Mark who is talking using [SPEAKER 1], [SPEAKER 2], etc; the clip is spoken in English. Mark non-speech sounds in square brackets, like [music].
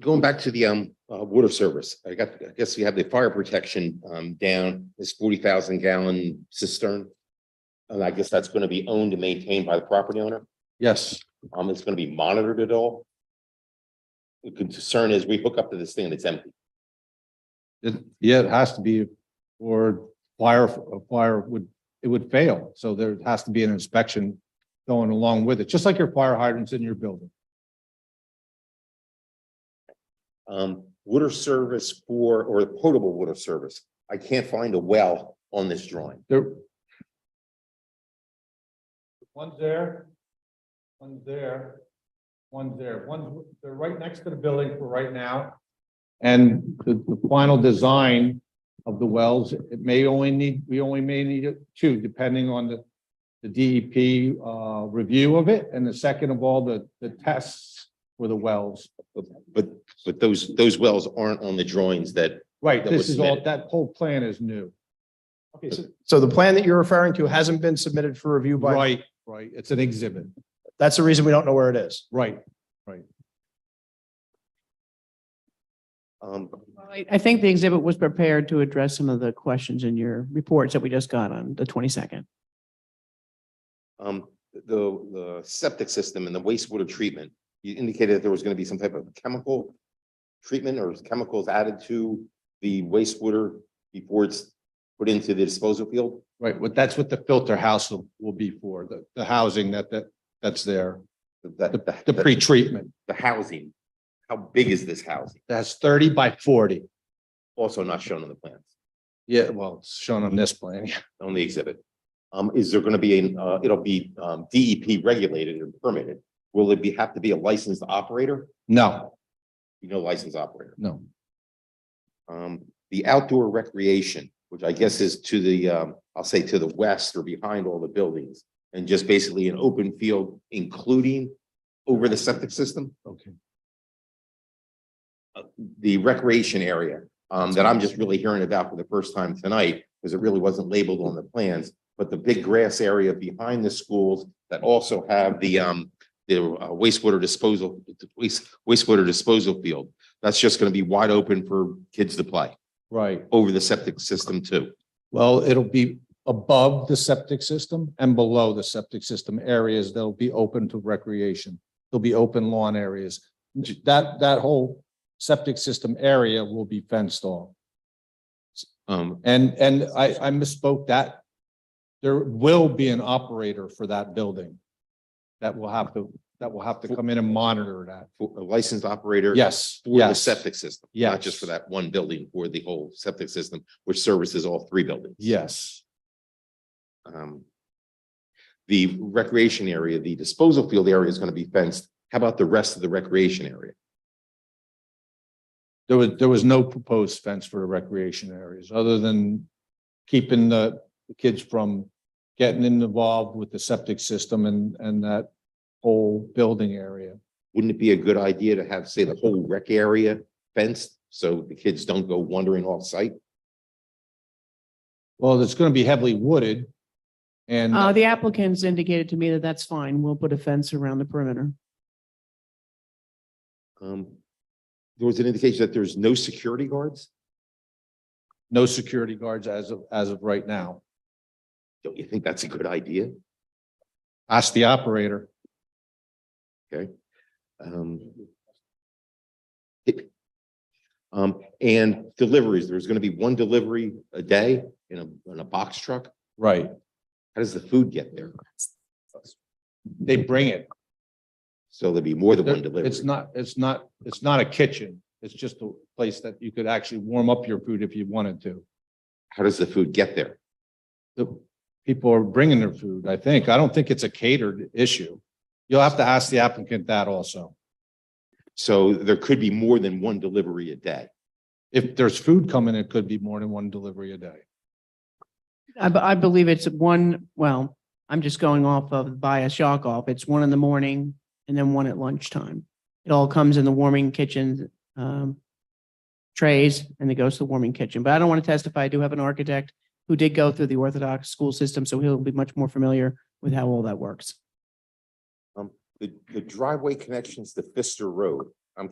[SPEAKER 1] going back to the um uh water service, I got, I guess we have the fire protection um down, this forty thousand gallon cistern. And I guess that's gonna be owned and maintained by the property owner,
[SPEAKER 2] Yes,
[SPEAKER 1] um, it's gonna be monitored at all. The concern is we hook up to this thing and it's empty.
[SPEAKER 2] it, yeah, it has to be, or fire, a fire would, it would fail. So there has to be an inspection going along with it, just like your fire hydrants in your building.
[SPEAKER 1] Um, water service for, or potable water service, I can't find a well on this drawing.
[SPEAKER 2] There. One's there, one's there, one's there, one's, they're right next to the building for right now. And the, the final design of the wells, it may only need, we only may need two, depending on the, the DEP, uh, review of it, and the second of all, the, the tests for the wells.
[SPEAKER 1] But, but those, those wells aren't on the drawings that,
[SPEAKER 2] Right,
[SPEAKER 1] That
[SPEAKER 2] this
[SPEAKER 1] was
[SPEAKER 2] is all,
[SPEAKER 1] submitted.
[SPEAKER 2] that whole plan is new.
[SPEAKER 3] Okay, so, so the plan that you're referring to hasn't been submitted for review by,
[SPEAKER 2] Right, right, it's an exhibit,
[SPEAKER 3] that's the reason we don't know where it is.
[SPEAKER 2] right.
[SPEAKER 1] um,
[SPEAKER 4] I, I think the exhibit was prepared to address some of the questions in your reports that we just got on the twenty-second.
[SPEAKER 1] Um, the, the septic system and the wastewater treatment, you indicated that there was gonna be some type of chemical treatment or chemicals added to the wastewater before it's put into the disposal field?
[SPEAKER 2] Right, what, that's what the filter house will, will be for, the, the housing that, that, that's there,
[SPEAKER 1] The,
[SPEAKER 2] the, the pretreatment.
[SPEAKER 1] The housing, how big is this housing?
[SPEAKER 2] That's thirty by forty.
[SPEAKER 1] Also not shown on the plans,
[SPEAKER 2] Yeah, well, it's shown on this plan. [laughs]
[SPEAKER 1] on the exhibit. Um, is there gonna be, an, uh, it'll be, um, DEP regulated and permitted? Will it be, have to be a licensed operator?
[SPEAKER 2] No,
[SPEAKER 1] You know, licensed operator.
[SPEAKER 2] no,
[SPEAKER 1] Um, the outdoor recreation, which I guess is to the, um, I'll say to the west or behind all the buildings. And just basically an open field, including over the septic system,
[SPEAKER 2] okay.
[SPEAKER 1] the recreation area. Um, that I'm just really hearing about for the first time tonight, because it really wasn't labeled on the plans. But the big grass area behind the schools that also have the, um, the uh, wastewater disposal, waste, wastewater disposal field. That's just gonna be wide open for kids to play
[SPEAKER 2] Right,
[SPEAKER 1] over the septic system too.
[SPEAKER 2] well, it'll be above the septic system and below the septic system areas that'll be open to recreation. There'll be open lawn areas. That, that whole septic system area will be fenced off.
[SPEAKER 1] Um,
[SPEAKER 2] And, and I, I misspoke that. There will be an operator for that building. That will have to, that will have to come in and monitor that.
[SPEAKER 1] for a licensed operator.
[SPEAKER 2] Yes,
[SPEAKER 1] For the
[SPEAKER 2] yes.
[SPEAKER 1] septic system. Not just for
[SPEAKER 2] Yes.
[SPEAKER 1] that one building, for the whole septic system, which services all three buildings.
[SPEAKER 2] Yes,
[SPEAKER 1] Um. The recreation area, the disposal field area is gonna be fenced. How about the rest of the recreation area?
[SPEAKER 2] there was, there was no proposed fence for the recreation areas, other than keeping the the kids from getting involved with the septic system and, and that whole building area.
[SPEAKER 1] Wouldn't it be a good idea to have, say, the whole rec area fenced? So the kids don't go wandering off site?
[SPEAKER 2] Well, it's going to be heavily wooded and.
[SPEAKER 4] Uh, the applicants indicated to me that that's fine. We'll put a fence around the perimeter.
[SPEAKER 1] Um. There was an indication that there's no security guards?
[SPEAKER 2] no security guards as of, as of right now.
[SPEAKER 1] Don't you think that's a good idea?
[SPEAKER 2] Ask the operator.
[SPEAKER 1] Um. it- Um, and deliveries, there's gonna be one delivery a day in a, in a box truck.
[SPEAKER 2] Right.
[SPEAKER 1] How does the food get there?
[SPEAKER 2] They bring it.
[SPEAKER 1] So there'll be more than one delivery.
[SPEAKER 2] It's not, it's not, it's not a kitchen. It's just a place that you could actually warm up your food if you wanted to.
[SPEAKER 1] How does the food get there?
[SPEAKER 2] The people are bringing their food, I think. I don't think it's a catered issue. You'll have to ask the applicant that also.
[SPEAKER 1] So there could be more than one delivery a day.
[SPEAKER 2] If there's food coming, it could be more than one delivery a day.
[SPEAKER 4] I, b- I believe it's one, well, I'm just going off of by a shock off. It's one in the morning and then one at lunchtime. It all comes in the warming kitchen, um, trays and it goes to the warming kitchen. But I don't want to testify. I do have an architect who did go through the Orthodox school system, so he'll be much more familiar with how all that works.
[SPEAKER 1] The, the driveway connections to Fister Road,